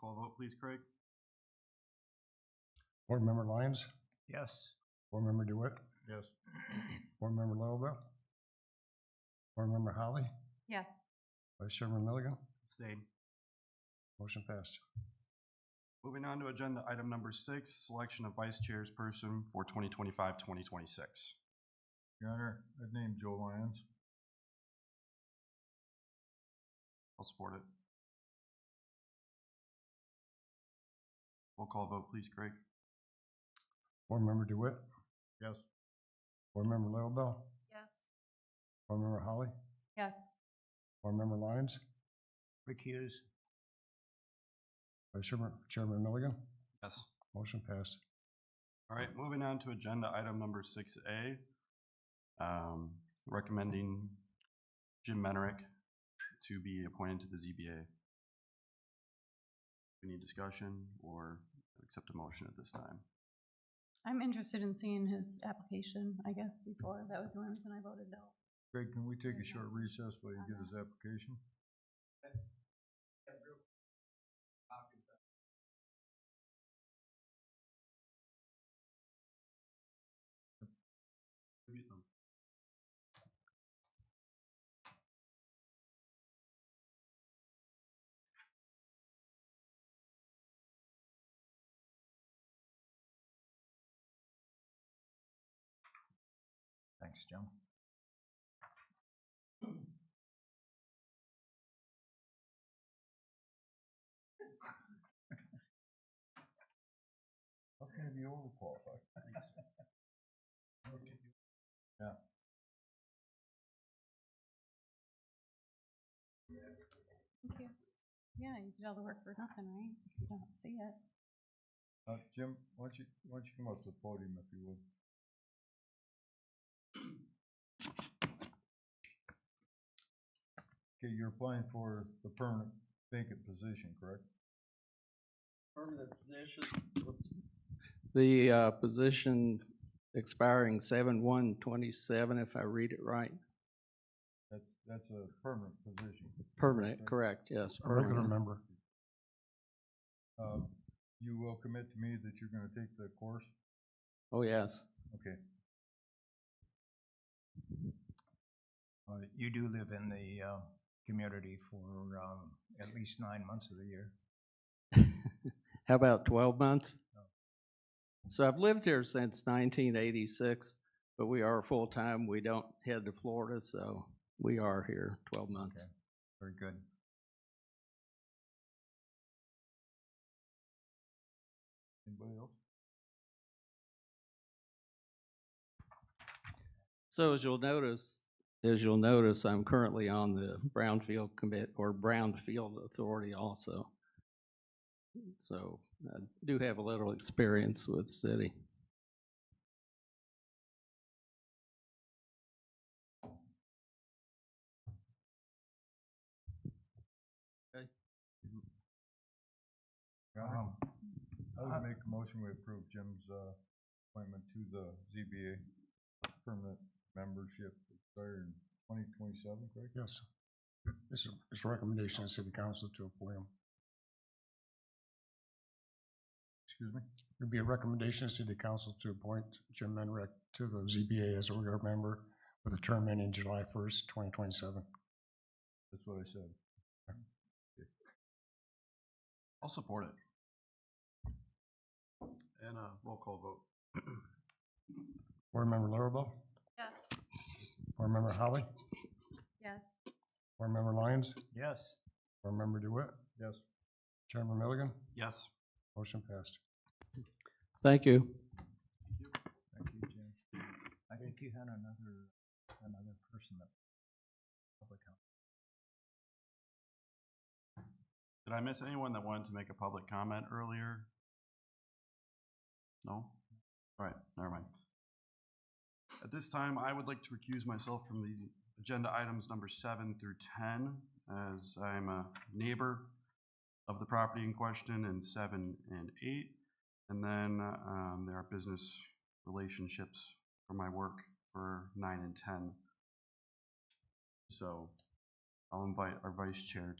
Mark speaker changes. Speaker 1: call vote, please, Craig?
Speaker 2: Board Member Lyons,
Speaker 1: Yes.
Speaker 2: Board Member DeWitt,
Speaker 1: Yes.
Speaker 2: Board Member Larrabell, Board Member Holly,
Speaker 3: Yes.
Speaker 2: Vice Chairman Milligan,
Speaker 1: Abstain.
Speaker 2: motion passed.
Speaker 1: Moving on to agenda item number six, selection of vice chairs person for 2025-2026. Your Honor, I've named Joe Lyons. I'll support it. Roll call vote, please, Craig?
Speaker 2: Board Member DeWitt,
Speaker 1: Yes.
Speaker 2: Board Member Larrabell,
Speaker 3: Yes.
Speaker 2: Board Member Holly,
Speaker 3: Yes.
Speaker 2: Board Member Lyons,
Speaker 1: Recuse.
Speaker 2: Vice Chairman, Chairman Milligan,
Speaker 1: Yes.
Speaker 2: motion passed.
Speaker 1: All right, moving on to agenda item number six A. Um, recommending Jim Menrick to be appointed to the ZBA. Any discussion or accept a motion at this time?
Speaker 3: I'm interested in seeing his application, I guess, before. That was the only reason I voted no.
Speaker 2: Greg, can we take
Speaker 3: a short
Speaker 2: recess while
Speaker 3: you get his
Speaker 2: application?
Speaker 1: Thanks, Jim.
Speaker 2: How can you be overqualified? Yeah.
Speaker 3: Thank you. Yeah, you did all the work for nothing, right? If you don't see it.
Speaker 2: Uh, Jim, why don't you, why don't you come up to the podium if you would? Okay, you're applying for the permanent vacant position, correct?
Speaker 4: permanent position. The uh, position expiring seven one twenty-seven, if I read it right.
Speaker 2: That's, that's a permanent position.
Speaker 4: Permanent, correct, yes. permanent.
Speaker 2: member. Uh, you will commit to me that you're gonna take the course?
Speaker 4: Oh, yes,
Speaker 2: Okay,
Speaker 5: Uh, You do live in the uh, community for um, at least nine months of the year.
Speaker 4: How about twelve months? So I've lived here since nineteen eighty-six, but we are full-time. We don't head to Florida, so we are here twelve months.
Speaker 5: Okay. Very good.
Speaker 2: anybody else?
Speaker 4: So as you'll notice, as you'll notice, I'm currently on the Brownfield Commit, or Brownfield Authority also. So I do have a little experience with city.
Speaker 2: Your Honor?
Speaker 5: Um,
Speaker 2: I would make a motion we approve Jim's uh, appointment to the ZBA permanent membership expired in twenty twenty-seven, correct? Yes. It's, it's recommendation of city council to appoint him. Excuse me? It'd be a recommendation of city council to appoint Jim Menrick to the ZBA as a regular member with a term ending July first, twenty twenty-seven. That's what I said.
Speaker 1: I'll support it. And a roll call vote.
Speaker 2: Board Member Larrabell,
Speaker 3: Yes.
Speaker 2: Board Member Holly,
Speaker 3: Yes.
Speaker 2: Board Member Lyons,
Speaker 5: Yes,
Speaker 2: Board Member DeWitt? Yes. Chairman Milligan?
Speaker 1: Yes.
Speaker 2: Motion passed.
Speaker 4: Thank you.
Speaker 5: thank you, Jim. I think you had another, another person that. public health.
Speaker 1: Did I miss anyone that wanted to make a public comment earlier? No? All right, never mind. At this time, I would like to recuse myself from the agenda items number seven through ten, as I'm a neighbor of the property in question in seven and eight. And then, um, there are business relationships for my work for nine and ten. So I'll invite our vice chair